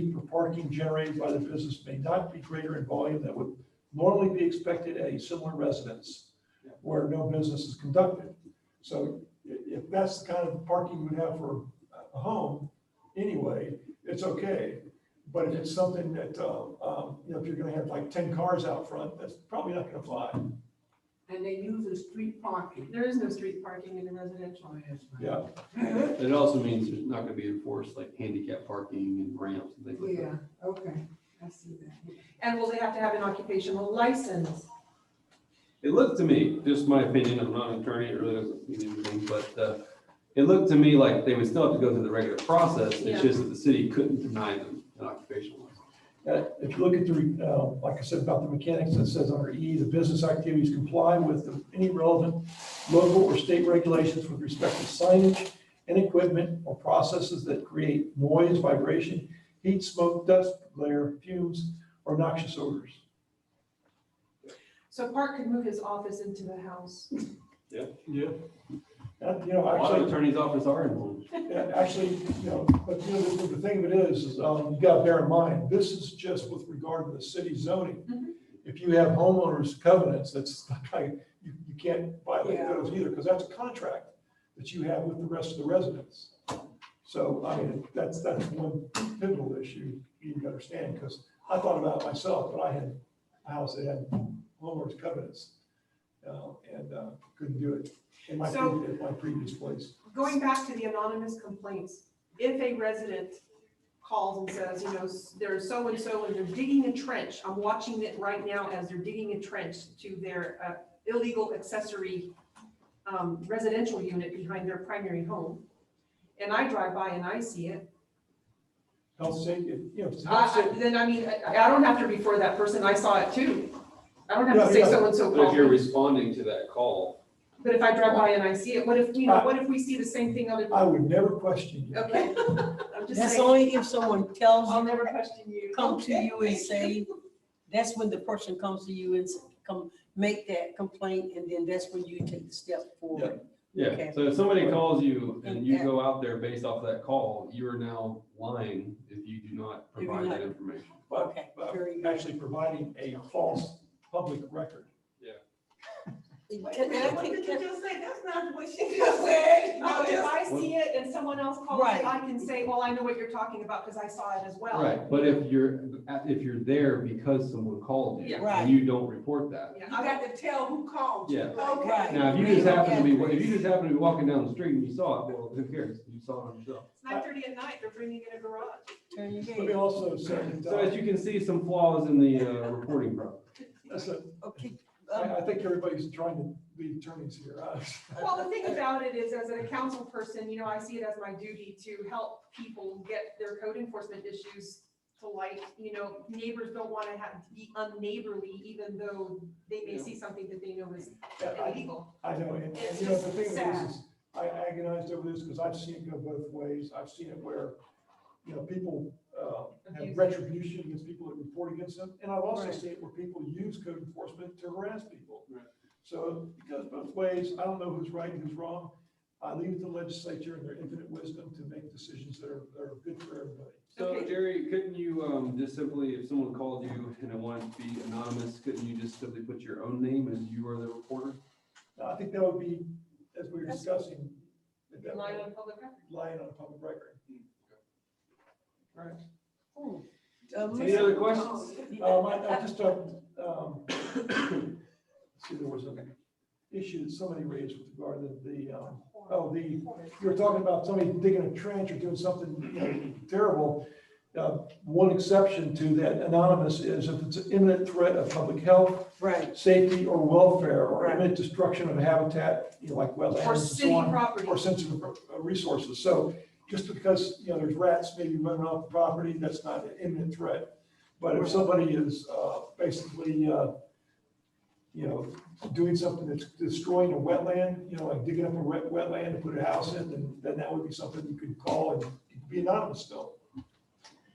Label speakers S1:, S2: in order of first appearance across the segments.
S1: from parking generated by the business may not be greater in volume than would normally be expected at a similar residence where no business is conducted. So i- if that's the kind of parking you would have for a home anyway, it's okay. But if it's something that, um, um, you know, if you're gonna have like ten cars out front, that's probably not gonna fly.
S2: And they use a street parking.
S3: There is no street parking in a residential.
S1: Yeah,
S4: It also means there's not gonna be enforced like handicap parking and ramps and things like that.
S2: Yeah, okay, I see that.
S3: And will they have to have an occupational license?
S4: It looked to me, just my opinion, I'm not an attorney, it really doesn't mean anything, but, uh, it looked to me like they would still have to go through the regular process,
S3: Yeah.
S4: it's just that the city couldn't deny them an occupational license.
S1: Uh, if you look at the, uh, like I said about the mechanics, it says under E, the business activities comply with the- any relevant local or state regulations with respect to signage and equipment or processes that create noise, vibration, heat, smoke, dust, glare, fumes, or noxious odors.
S3: So Park could move his office into the house.
S1: Yeah. And, you know,
S4: A lot of
S1: actually,
S4: attorneys' office are involved.
S1: yeah, actually, you know, but you know, the, the thing of it is, is, um, you gotta bear in mind, this is just with regard to the city zoning.
S3: Mhm.
S1: If you have homeowners covenants, that's not like, you, you can't violate
S2: Yeah.
S1: those either, because that's a contract that you have with the rest of the residents. So, I mean, that's, that's one pivotal issue you need to understand, because I thought about it myself, but I had a house that had homeowners covenants. uh, and, uh, couldn't do it in my,
S3: So-
S1: pre- at my previous place.
S3: Going back to the anonymous complaints, if a resident calls and says, you know, s- there's so-and-so and they're digging a trench, I'm watching it right now as they're digging a trench to their uh, illegal accessory um, residential unit behind their primary home. And I drive by and I see it.
S1: Health safety, you know, it's health
S3: I- I-
S1: safety.
S3: Then, I mean, I I don't have to refer that person, I saw it too. I don't have
S1: Yeah,
S3: to say
S1: yeah.
S3: so-and-so
S4: But if
S3: called
S4: you're
S3: me.
S4: responding to that call,
S3: But if I drive by and I see it, what if,
S4: Uh,
S3: you know, what if we see the same thing other?
S1: I would never question you.
S3: Okay, I'm just
S5: That's
S3: saying,
S5: only if someone tells
S3: I'll
S5: you,
S3: never question you.
S5: come to you and say, that's when the person comes to you and s- come, make that complaint, and then that's when you take the step forward.
S4: yeah,
S5: Okay.
S4: so if somebody calls you and you go out there based off that call, you are now lying if you do not
S5: If you're
S4: provide
S5: not-
S4: that information.
S1: But
S5: Okay,
S1: but
S5: very good.
S1: actually providing a false public record.
S2: Wait a
S5: Can-
S2: minute,
S5: can I
S2: what did
S5: take-
S2: you
S5: can-
S2: just say? That's not what she just said.
S3: No,
S2: No,
S3: if
S2: it's-
S3: I see it and someone else calls
S5: Right.
S3: it, I can say, well, I know what you're talking about because I saw it as well.
S4: Right, but if you're, if you're there because someone called you,
S3: Yeah. Oh,
S5: Right.
S4: and you don't report that,
S3: Yeah,
S2: You
S3: I got-
S2: got to tell who called you.
S4: Yeah.
S5: Right.
S2: Okay.
S4: Now, if you just happen to be, if you just happen to be walking down the street and you saw it, well, who cares? You saw it yourself.
S3: It's nine thirty at night, they're bringing in a garage.
S5: Turn your
S1: Let me
S5: head.
S1: also say that,
S4: So as
S1: uh,
S4: you can see, some flaws in the uh, reporting process.
S1: listen,
S5: Okay,
S1: I,
S5: um,
S1: I think everybody's trying to be attorneys here. Uh, huh?
S3: Well, the thing about it is, as a council person, you know, I see it as my duty to help people get their code enforcement issues to light. You know, neighbors don't want to have, be unneighborly, even though they may see something that they know is
S1: Yeah, I-
S3: illegal.
S1: I know, and, and
S3: It's
S1: you know, the
S3: just
S1: thing
S3: sad.
S1: is, is I agonized over this because I've seen it go both ways. I've seen it where, you know, people, uh, have
S3: Abuse.
S1: retribution against people that report against them. And I've also
S5: Right.
S1: seen it where people use code enforcement to harass people.
S4: Right.
S1: So it goes both ways. I don't know who's right and who's wrong. I leave it to the legislature and their infinite wisdom to make decisions that are, that are good for everybody.
S4: So
S3: Okay.
S4: Jerry, couldn't you um, just simply, if someone called you and it wanted to be anonymous, couldn't you just simply put your own name as you are the reporter?
S1: Now, I think that would be, as we were
S5: That's-
S1: discussing, that that
S3: Relying
S1: would
S3: on public record.
S1: be lying on a public record.
S5: hmm, um,
S4: Any other questions?
S5: Oh,
S1: Um, I, I just, uh, um, let's see, there was an issue that somebody raised with regard to the, um, oh, the, you were talking about somebody digging a trench or doing something, you know, terrible. Uh, one exception to that anonymous is if it's an imminent threat of public health,
S5: Right,
S1: safety, or welfare, or
S5: Right.
S1: imminent destruction of habitat, you know, like wetlands
S3: Or
S1: and
S3: city
S1: so on.
S3: property.
S1: or sensitive uh, resources. So just because, you know, there's rats maybe running off the property, that's not an imminent threat. But if somebody is uh, basically, uh, you know, doing something that's destroying a wetland, you know, like digging up a wet wetland to put a house in, then, then that would be something you could call and be anonymous still.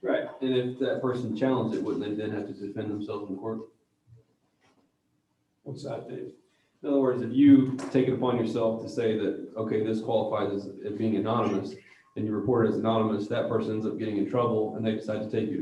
S4: Right. And if that person challenged it, wouldn't they then have to defend themselves in court?
S1: What's that, Dave?
S4: In other words, if you take it upon yourself to say that, okay, this qualifies as it being anonymous, and you report it as anonymous, that person ends up getting in trouble, and they decide to take you to